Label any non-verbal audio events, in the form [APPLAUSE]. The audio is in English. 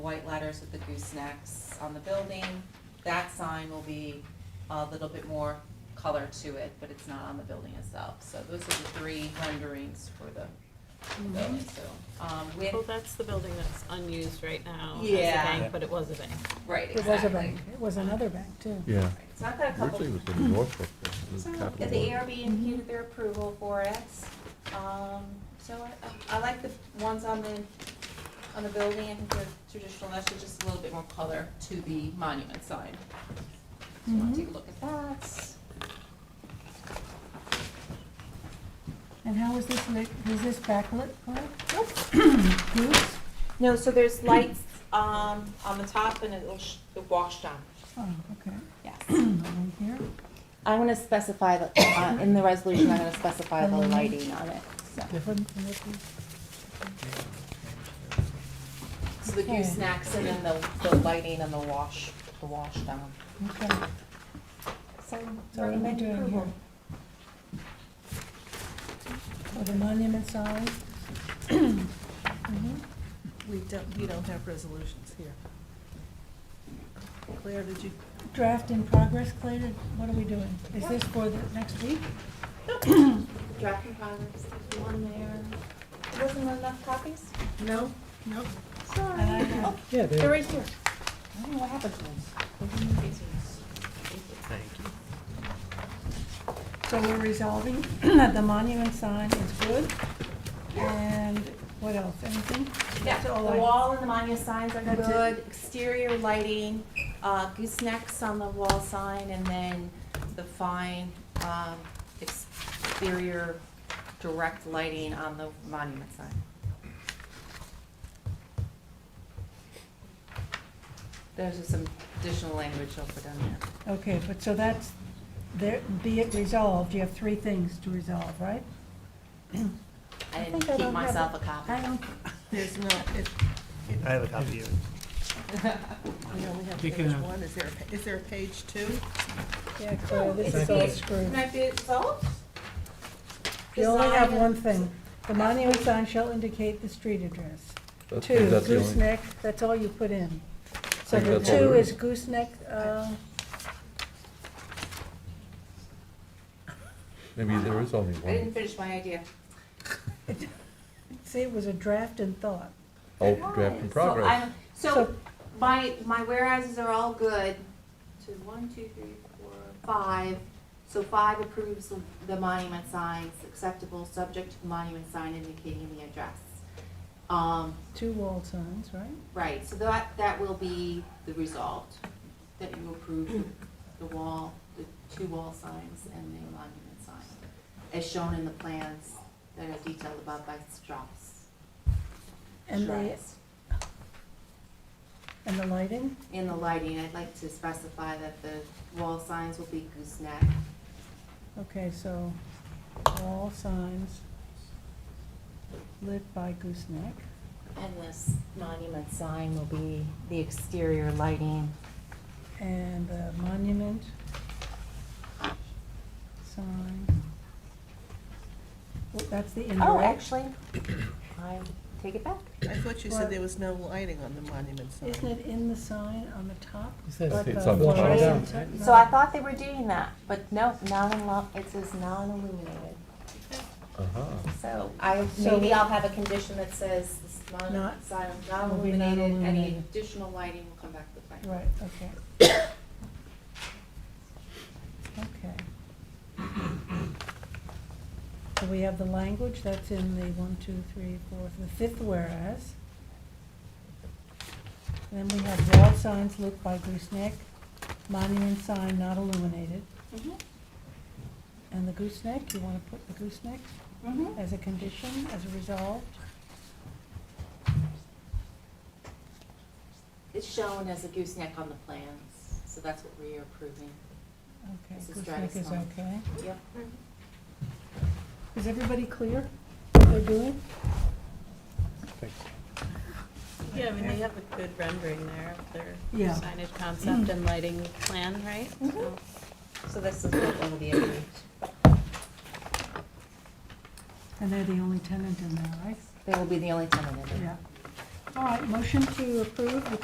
white letters with the goosenecks on the building. That sign will be a little bit more color to it, but it's not on the building itself. So those are the three renderings for the Mm-hmm. building, so, um, with, Oh, Well, that's the building that's unused right now as a Yeah. Yeah. bank, but it was a bank. right, It exactly. was a bank, it was another bank too. Yeah, It's not that a couple. originally it was in Norfolk, uh, So, the yeah, the Capital One. ARB Mm-hmm. imputed their approval for it. Um, so I, I like the ones on the, on the building, I think they're traditional, that's just a little bit more color to the monument sign. So Mm-hmm. I'll take a look at that. And how was this lit, was this backlit correct? Nope. [CLEARS THROAT] Goose? No, so there's lights, um, on the top and it'll, sh- it'll wash down. Oh, okay, Yes. [CLEARS THROAT] right here. I'm gonna specify, the uh, in the resolution, I'm gonna specify the lighting on it, so. Different from this one. So the goose Okay. snacks and then the, the lighting and the wash, the wash down. Okay, So, so what am I doing here? For the monument sign? [CLEARS THROAT] Mhm. We don't, we don't have resolutions here. Claire, did you, Draft in progress, Clay, did- what are we doing? Is this for the next week? Draft in progress, there's one there. Wasn't there enough copies? no, no, Sorry. And I have- Yeah, They're they, right here. I don't know what happened to them. So we're resolving [CLEARS THROAT] that the monument sign is good, and what else, anything? Yeah, That's the all I- wall and the monument signs are That's it. good, exterior lighting, uh, goosenecks on the wall sign, and then the fine, um, exterior direct lighting on the monument sign. There's just some additional language I'll put on there. Okay, but so that's, there, be it resolved, you have three things to resolve, right? I think didn't I keep don't have myself a it. copy. I don't, [LAUGHS] there's no, it, I have a copy of it. we only have, You there's can have- one, is there, a pa- is there a page two? yeah, Claire, this is all screwed. I be solved? You only have one thing. The monument sign shall indicate the street address. that's, Two, that's the only, gooseneck, that's all you put in. So think the that's all two there is is. gooseneck, uh, maybe there is only I didn't one. finish my idea. see, it was a draft in thought. Oh, draft in So I'm- progress. So- So, my, my whereases are all good, so one, two, three, four, five. So five approves the- the monument signs acceptable, subject to the monument sign indicating the address. Um, Two wall signs, right? right, so that, that will be the result, that you approve the wall, the two wall signs and the monument sign, as shown in the plans that are detailed above by Strauss. And the, Strauss. and the lighting? In the lighting, I'd like to specify that the wall signs will be gooseneck. Okay, so all signs lit by gooseneck. And this monument sign will be the exterior lighting. And the monument sign. Well, That's the indirect. Oh, actually, I take it back. I thought you said there was no lighting on the monument sign. Isn't it in the sign on the top? But It's on the top. fluorescent- no. So I thought they were doing that, but no, non, it says non-illuminated. Uh-huh. So I, So- maybe I'll have a condition that says this monument Not- sign is will be non-illuminated, any non-illuminated. additional lighting will come back to the plan. Right, okay. Okay. So we have the language, that's in the one, two, three, four, the fifth whereas. Then we have wall signs lit by gooseneck, monument sign not illuminated. Mhm. And the gooseneck, you wanna put the gooseneck Mhm. as a condition, as a resolved? It's shown as a gooseneck on the plans, so that's what we are approving. Okay, This is gooseneck is Dragon's okay. Yep. Is everybody clear what they're doing? Yeah, I mean, they have a good rendering there of their Yeah. signage concept and lighting plan, right? So- So this is what will be approved. And they're the only tenant in there, right? They will be the only tenant in there. Yeah. All right, motion to approve the